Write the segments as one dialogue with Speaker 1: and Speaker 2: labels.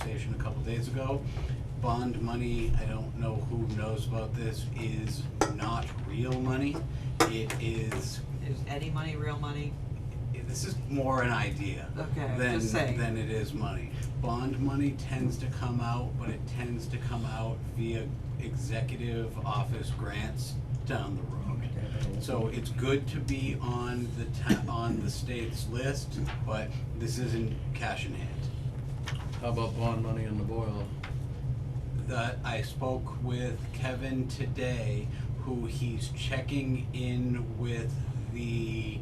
Speaker 1: station a couple days ago. Bond money, I don't know who knows about this, is not real money. It is,
Speaker 2: Is any money real money?
Speaker 1: this is more an idea
Speaker 2: Okay, I'm
Speaker 1: than,
Speaker 2: just saying.
Speaker 1: than it is money. Bond money tends to come out, but it tends to come out via executive office grants down the road. So it's good to be on the ta- on the state's list, but this isn't cash in hand.
Speaker 3: How about bond money in the boil?
Speaker 1: that I spoke with Kevin today, who he's checking in with the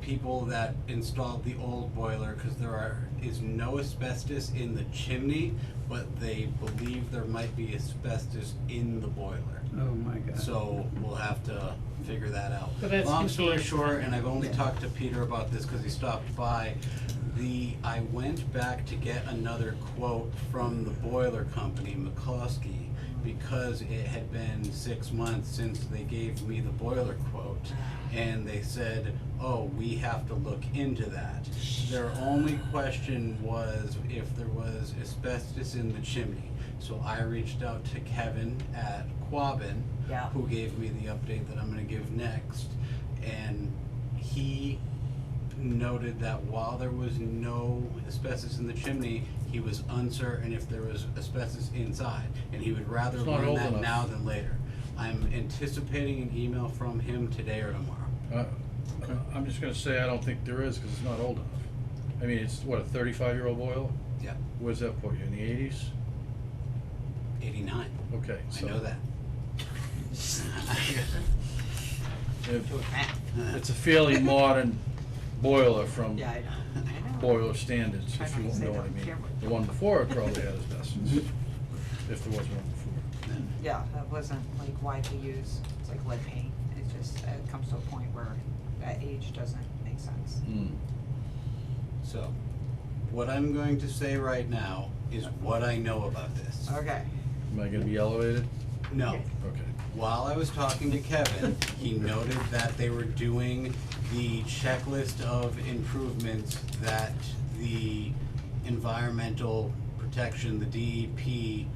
Speaker 1: people that installed the old boiler, cause there are, is no asbestos in the chimney, but they believe there might be asbestos in the boiler.
Speaker 4: Oh, my God.
Speaker 1: So we'll have to figure that out.
Speaker 4: But that's
Speaker 1: Long story
Speaker 4: confusing.
Speaker 1: short, and I've only talked to Peter about this because he stopped by, the, I went back to get another quote from the boiler company, McCloskey, because it had been six months since they gave me the boiler quote. And they said, oh, we have to look into that. Their only question was if there was asbestos in the chimney. So I reached out to Kevin at Quabbin,
Speaker 2: Yeah.
Speaker 1: who gave me the update that I'm going to give next. And he noted that while there was no asbestos in the chimney, he was uncertain if there was asbestos inside. And he would rather
Speaker 3: It's not
Speaker 1: learn
Speaker 3: old
Speaker 1: that
Speaker 3: enough.
Speaker 1: now than later. I'm anticipating an email from him today or tomorrow.
Speaker 3: Uh, I'm just gonna say I don't think there is, cause it's not old enough. I mean, it's what, a thirty-five year old boil?
Speaker 1: Yeah,
Speaker 3: Where's that put you, in the eighties?
Speaker 1: 89.
Speaker 3: Okay,
Speaker 1: I
Speaker 3: so.
Speaker 1: know that.
Speaker 3: it-
Speaker 2: Doing math.
Speaker 3: It's a fairly modern boiler from
Speaker 2: Yeah, I know, I know.
Speaker 3: boiler standards,
Speaker 2: Try
Speaker 3: if
Speaker 2: not
Speaker 3: you
Speaker 2: to
Speaker 3: won't
Speaker 2: say
Speaker 3: know
Speaker 2: that
Speaker 3: what I
Speaker 2: on
Speaker 3: mean.
Speaker 2: camera.
Speaker 3: The one before it probably had asbestos, if there was one before.
Speaker 2: Yeah, that wasn't like widely used, it's like lead paint, it just, it comes to a point where that age doesn't make sense.
Speaker 3: Hmm.
Speaker 1: So, what I'm going to say right now is what I know about this.
Speaker 2: Okay,
Speaker 3: Am I gonna be elevated?
Speaker 1: No.
Speaker 3: Okay.
Speaker 1: While I was talking to Kevin, he noted that they were doing the checklist of improvements that the environmental protection, the DEP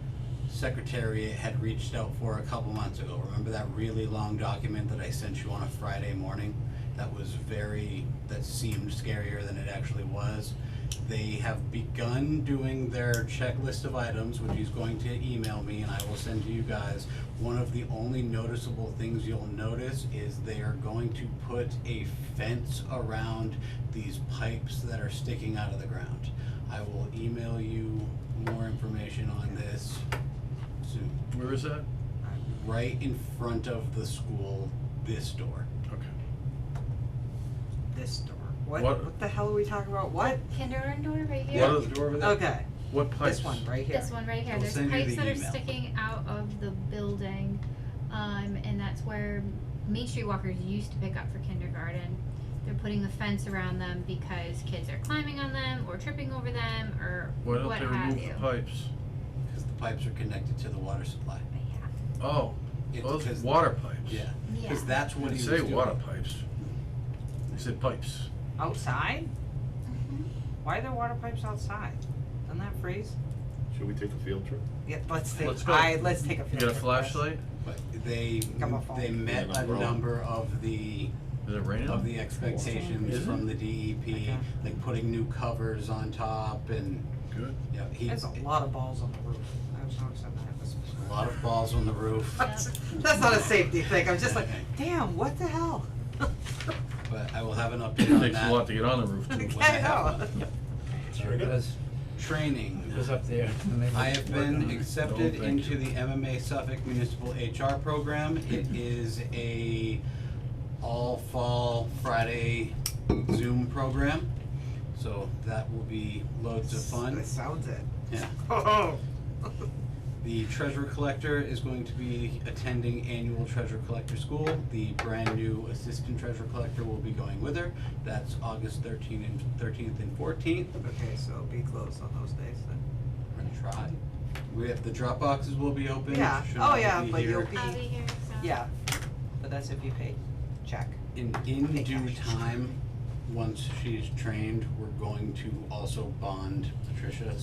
Speaker 1: secretariat had reached out for a couple months ago. Remember that really long document that I sent you on a Friday morning? That was very, that seemed scarier than it actually was. They have begun doing their checklist of items, which he's going to email me and I will send to you guys. One of the only noticeable things you'll notice is they are going to put a fence around these pipes that are sticking out of the ground. I will email you more information on this soon.
Speaker 3: Where is that?
Speaker 1: Right in front of the school, this door.
Speaker 3: Okay.
Speaker 2: this door, what,
Speaker 3: What-
Speaker 2: what the hell are we talking about, what?
Speaker 5: Kindergarten door right here.
Speaker 3: What is the door over there?
Speaker 2: Okay,
Speaker 3: What pipes?
Speaker 2: this one right here.
Speaker 5: This one right here,
Speaker 1: We'll
Speaker 5: there's
Speaker 1: send you
Speaker 5: pipes
Speaker 1: the
Speaker 5: that are
Speaker 1: email.
Speaker 5: sticking out of the building, um, and that's where Main Street Walkers used to pick up for kindergarten. They're putting a fence around them because kids are climbing on them or tripping over them or
Speaker 3: Why don't
Speaker 5: what
Speaker 3: they
Speaker 5: have
Speaker 3: remove
Speaker 5: you.
Speaker 3: the pipes?
Speaker 1: Because the pipes are connected to the water supply.
Speaker 5: But yeah,
Speaker 3: Oh,
Speaker 1: It's
Speaker 3: those
Speaker 1: 'cause-
Speaker 3: water pipes.
Speaker 1: Yeah,
Speaker 5: yeah.
Speaker 1: because that's what
Speaker 3: They
Speaker 1: he was
Speaker 3: say
Speaker 1: doing.
Speaker 3: water pipes. They said pipes.
Speaker 2: Outside?
Speaker 5: Mhm.
Speaker 2: Why are there water pipes outside? Doesn't that freeze?
Speaker 6: Should we take a field trip?
Speaker 2: Yeah, let's take,
Speaker 3: Let's go.
Speaker 2: I, let's take a
Speaker 3: You
Speaker 2: field
Speaker 3: got a
Speaker 2: trip,
Speaker 3: flashlight?
Speaker 1: But they,
Speaker 2: Come on, phone.
Speaker 1: they met
Speaker 6: Yeah,
Speaker 1: a
Speaker 6: no, bro.
Speaker 1: number of the,
Speaker 3: Is it raining?
Speaker 1: of the expectations
Speaker 3: Is it?
Speaker 1: from the DEP,
Speaker 2: Okay.
Speaker 1: like putting new covers on top and,
Speaker 3: Good.
Speaker 1: yeah, he.
Speaker 2: There's a lot of balls on the roof, I was noticing that this
Speaker 1: a lot of balls on the roof.
Speaker 5: Yep.
Speaker 2: That's not a safety thing, I'm just like, damn, what the hell?
Speaker 1: But I will have an update
Speaker 3: It
Speaker 1: on
Speaker 3: takes a lot
Speaker 1: that.
Speaker 3: to get on the roof too.
Speaker 1: when I
Speaker 2: I know.
Speaker 1: have one.
Speaker 4: There it goes,
Speaker 1: Training.
Speaker 4: it goes up there. and they
Speaker 1: I have
Speaker 4: work on
Speaker 1: been
Speaker 4: it.
Speaker 1: accepted
Speaker 3: No, thank
Speaker 1: into the MMA Suffolk Municipal HR program. It is a all fall Friday Zoom program. So that will be loads of fun.
Speaker 2: That sounds it.
Speaker 1: Yeah.
Speaker 2: Oh.
Speaker 1: The treasure collector is going to be attending annual treasure collector school. The brand new assistant treasure collector will be going with her. That's August thirteenth and thirteenth and fourteenth.
Speaker 2: Okay, so be closed on those days then.
Speaker 1: We're gonna try. We have, the drop boxes will be open.
Speaker 2: Yeah.
Speaker 1: Should
Speaker 2: Oh,
Speaker 1: not
Speaker 2: yeah,
Speaker 1: be
Speaker 2: but
Speaker 1: here.
Speaker 2: you'll be-
Speaker 5: I'll be here, so.
Speaker 2: Yeah, but that's if you pay check.
Speaker 1: And in due time, once she's trained, we're going to also bond Patricia